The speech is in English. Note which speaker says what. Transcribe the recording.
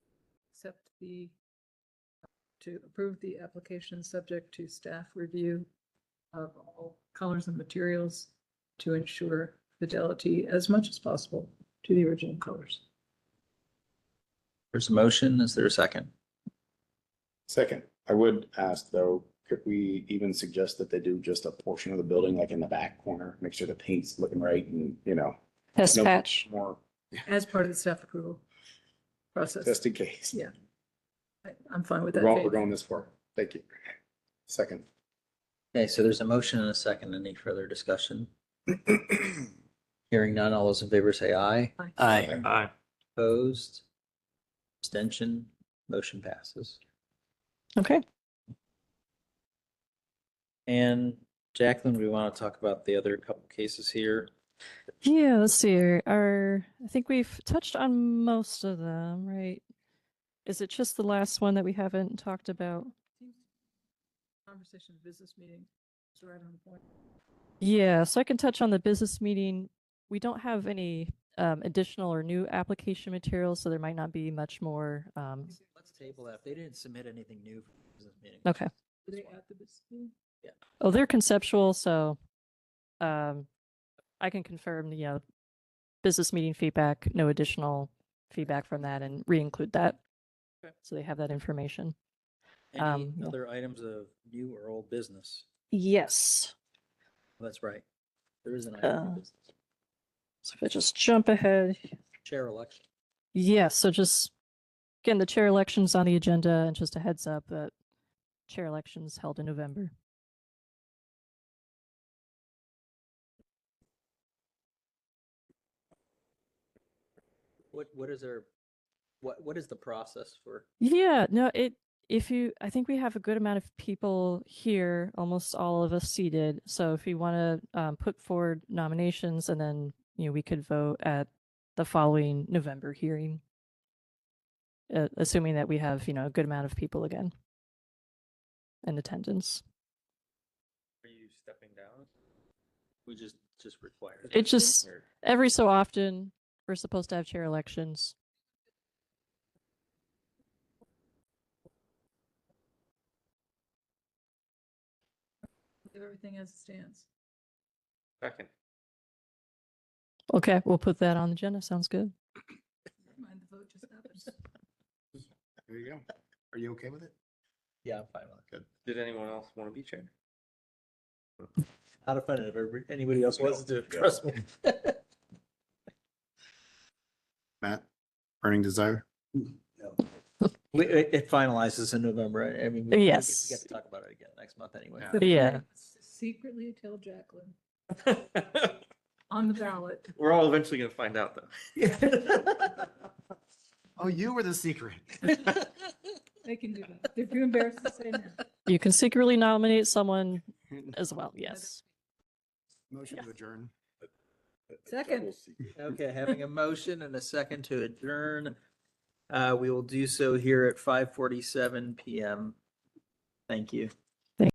Speaker 1: accept the, to approve the application subject to staff review of all colors and materials to ensure fidelity as much as possible to the original colors.
Speaker 2: There's a motion. Is there a second?
Speaker 3: Second, I would ask though, could we even suggest that they do just a portion of the building, like in the back corner, make sure the paint's looking right and, you know,
Speaker 4: Test
Speaker 3: no
Speaker 4: patch.
Speaker 3: more,
Speaker 1: As part of the staff approval process,
Speaker 3: just in case.
Speaker 1: Yeah. I- I'm fine with
Speaker 3: We're
Speaker 1: that.
Speaker 3: going, we're
Speaker 1: Faith.
Speaker 3: going this far. Thank you. Second.
Speaker 2: Okay, so there's a motion and a second. Any further discussion? Hearing none, all those in favor say aye.
Speaker 1: Aye.
Speaker 3: Aye.
Speaker 5: Aye.
Speaker 2: Opposed? Abstention? Motion passes.
Speaker 4: Okay.
Speaker 2: And Jacqueline, we want to talk about the other couple cases here.
Speaker 4: Yeah, let's see here. Our, I think we've touched on most of them, right? Is it just the last one that we haven't talked about?
Speaker 1: Conversation, business meeting, is right on the point.
Speaker 4: Yeah, so I can touch on the business meeting. We don't have any um, additional or new application materials, so there might not be much more. Um,
Speaker 2: Let's table that. If They didn't submit anything new for the business meeting.
Speaker 4: okay.
Speaker 1: Were they at the business meeting?
Speaker 4: Oh, they're conceptual, so um, I can confirm, you know, business meeting feedback, no additional feedback from that and re-include that. So they have that information.
Speaker 2: Any
Speaker 4: Um, yeah.
Speaker 2: other items of new or old business?
Speaker 4: Yes.
Speaker 2: That's right. There is an item.
Speaker 4: Uh,
Speaker 2: of business.
Speaker 4: So if I just jump ahead.
Speaker 2: Chair election.
Speaker 4: Yeah, so just again, the chair election's on the agenda and just a heads up that chair election's held in November.
Speaker 2: What, what is our, what, what is the process for?
Speaker 4: Yeah, no, it if you I think we have a good amount of people here, almost all of us seated. So if you want to um, put forward nominations and then, you know, we could vote at the following November hearing. Uh, assuming that we have, you know, a good amount of people again in attendance.
Speaker 5: Are you stepping down?
Speaker 2: We just, just require.
Speaker 4: It just every so often we're supposed to have chair elections.
Speaker 1: Leave Everything as it stands.
Speaker 5: Second.
Speaker 4: Okay, we'll put that on the agenda. Sounds good.
Speaker 1: Never Mind the vote just happens.
Speaker 3: There you go. Are you okay with it?
Speaker 2: Yeah, I'm fine with it.
Speaker 5: Did anyone else want to be chair?
Speaker 2: Out of fun if everybody- anybody else wants to,
Speaker 3: Yeah.
Speaker 2: trust me.
Speaker 3: Matt, burning desire?
Speaker 2: We, Mm, it it finalizes in November. I- I mean. we- we get-
Speaker 4: Yes.
Speaker 2: We get to talk about it again next month anyway.
Speaker 3: Yeah.
Speaker 1: The plan
Speaker 4: Yeah.
Speaker 1: was to Secretly tell Jacqueline on the ballot.
Speaker 5: We're all eventually gonna find out though.
Speaker 3: Oh, you were the secret.
Speaker 1: They can do that. They're too embarrassed to say no.
Speaker 4: You can secretly nominate someone as well. Yes.
Speaker 3: Motion to adjourn.
Speaker 1: Second.
Speaker 2: Okay, having a motion and a second to adjourn. Uh, we will do so here at five forty-seven PM. Thank you.